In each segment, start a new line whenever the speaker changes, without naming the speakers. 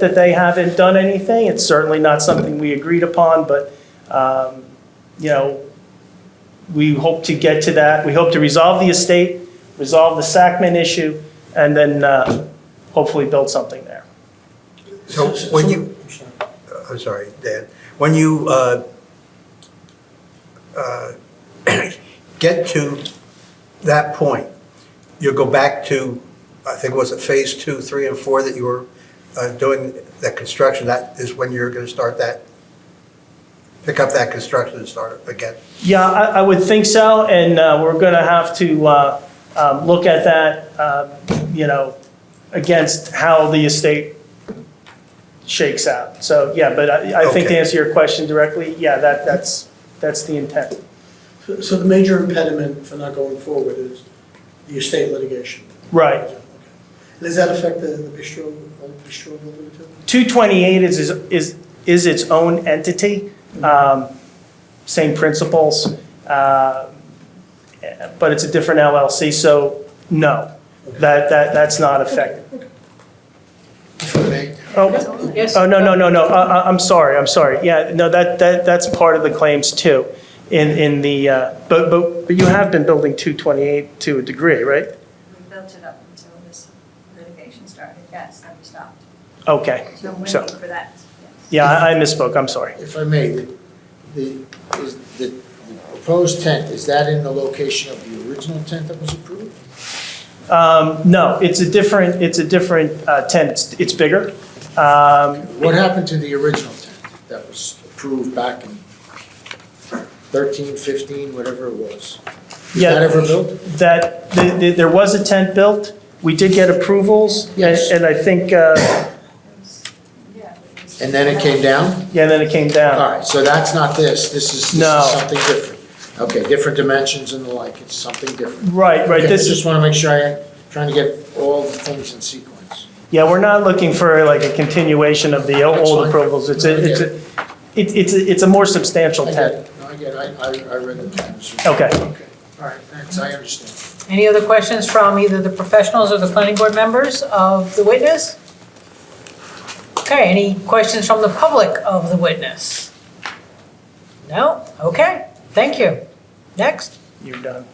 that they haven't done anything. It's certainly not something we agreed upon, but, um, you know, we hope to get to that. We hope to resolve the estate, resolve the Sacman issue, and then uh, hopefully build something there.
So when you, I'm sorry, Dan, when you uh, uh, get to that point, you'll go back to, I think, was it phase two, three, and four that you were uh, doing that construction? That is when you're going to start that, pick up that construction and start it again?
Yeah, I, I would think so, and uh, we're going to have to uh, um, look at that, uh, you know, against how the estate shakes out. So, yeah, but I, I think to
Okay.
answer your question directly, yeah, that, that's, that's the intent.
So so the major impediment for not going forward is the estate litigation?
Right.
Okay. Does that affect the the bistro, old bistro building too?
228 is, is- is, is its own entity, um, same principles, uh, but it's a different LLC, so no, that, that, that's not affected. Oh,
Yes.
oh, no, no, no, no, I, I- I'm sorry, I'm sorry. Yeah, no, that, that, that's part of the claims too, in, in the, uh, but, but, but you have been building 228 to a degree, right?
We built it up until this litigation started, yes, then we stopped.
Okay,
So I'm
So-
waiting for that, yes.
yeah, I I misspoke, I'm sorry.
If I may, the, the, is, the the proposed tent, is that in the location of the original tent that was approved?
Um, No, it's a different, it's a different uh, tent, It's- it's bigger. Um,
What happened to the original tent that was approved back in thirteen, fifteen, whatever it was? Was
Yeah.
that ever built?
That, th- th- there was a tent built, we did get approvals, and-
Yes.
and I think, uh,
Yeah, but it's-
And then it came down?
yeah, and then it came down.
All right, so that's not this, this is,
No.
this is something different. Okay, different dimensions and the like, it's something different.
Right, right,
Okay,
this
I
is,
Just wanna make sure I, trying to get all the things in sequence.
yeah, we're not looking for like a continuation of the o-
That's
old
fine.
approvals. It's
I
a,
get
it's a, it- it's a, it's a more
I
substantial
get
tent.
it, no, I get it, I, I, I read the plans.
Okay.
Okay, all right, thanks, I understand.
Any other questions from either the professionals or the planning board members of the witness? Okay, any questions from the public of the witness? No? Okay, thank you. Next.
You're done.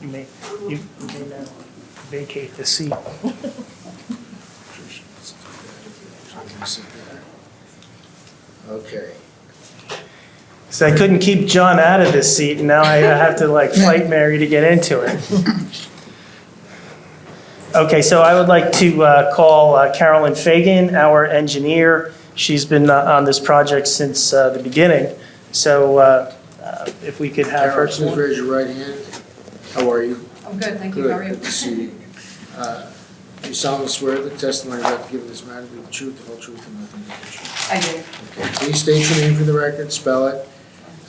You may, you may now vacate the seat.
Okay.
So I couldn't keep John out of this seat, and now I have to like fight Mary to get into it. Okay, so I would like to uh, call uh, Carolyn Fagan, our engineer. She's been uh, on this project since uh, the beginning, so uh, uh, if we could have her.
Carol, please raise your right hand. How are you?
I'm good, thank you,
Good.
how are you?
Good to see you. Uh, You solemnly swear the testimony you're about to give in this matter will be the truth, the whole truth, and nothing but the truth.
I do,
Okay, Please state your name for the record, spell it,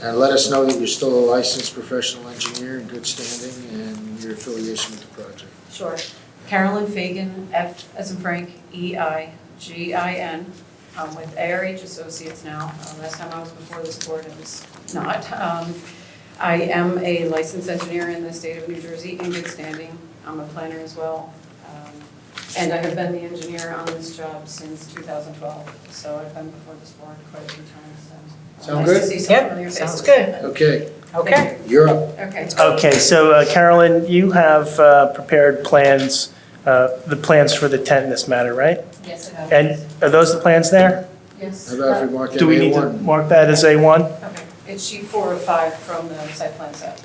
and let us know that you're still a licensed professional engineer in good standing and your affiliation with the project.
sure. Carolyn Fagan, F as in Frank, E I G I N. I'm with ARH Associates now. Uh, Last time I was before this board, it was not. Um, I am a licensed engineer in the state of New Jersey in good standing. I'm a planner as well. Um, And I have been the engineer on this job since 2012, so I've been before this board quite a few times, so.
Sound
Nice
good?
to see some
Yep,
familiar faces.
sounds good.
Okay,
Okay.
you're up.
Okay.
Okay, so uh, Carolyn, you have uh, prepared plans, uh, the plans for the tent in this matter, right?
Yes, it has.
And are those the plans there?
Yes. Uh,
How about if we mark that
Do we need to
A1?
mark that as A1?
Okay, it's sheet four of five from the site plan set.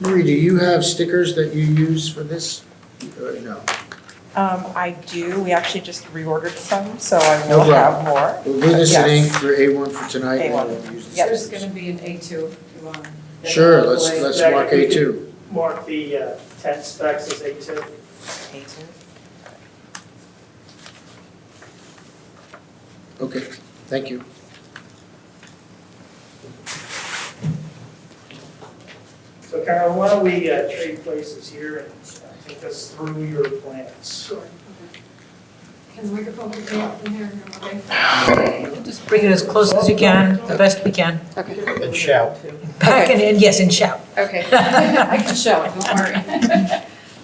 Marie, do you have stickers that you use for this? Uh, No.
Um, I do, we actually just reordered some, so I
No
will
problem.
have more.
We'll do this in
Yes.
ink for A1 for tonight. and
A1,
we'll use the
yep.
There's
stickers.
gonna be an A two if you want.
Sure, let's, let's
Yeah,
mark
you can-
A2.
mark the uh, tent specs as A2.
Okay, thank you.
So Carol, why don't we uh, trade places here and uh, take us through your plans?
Sure. Can the microphone pick me up from here, okay?
Just bring it as close as you can, the best we can.
Okay.
And shout.
Back and in, yes, and shout.
Okay. I can show, don't worry.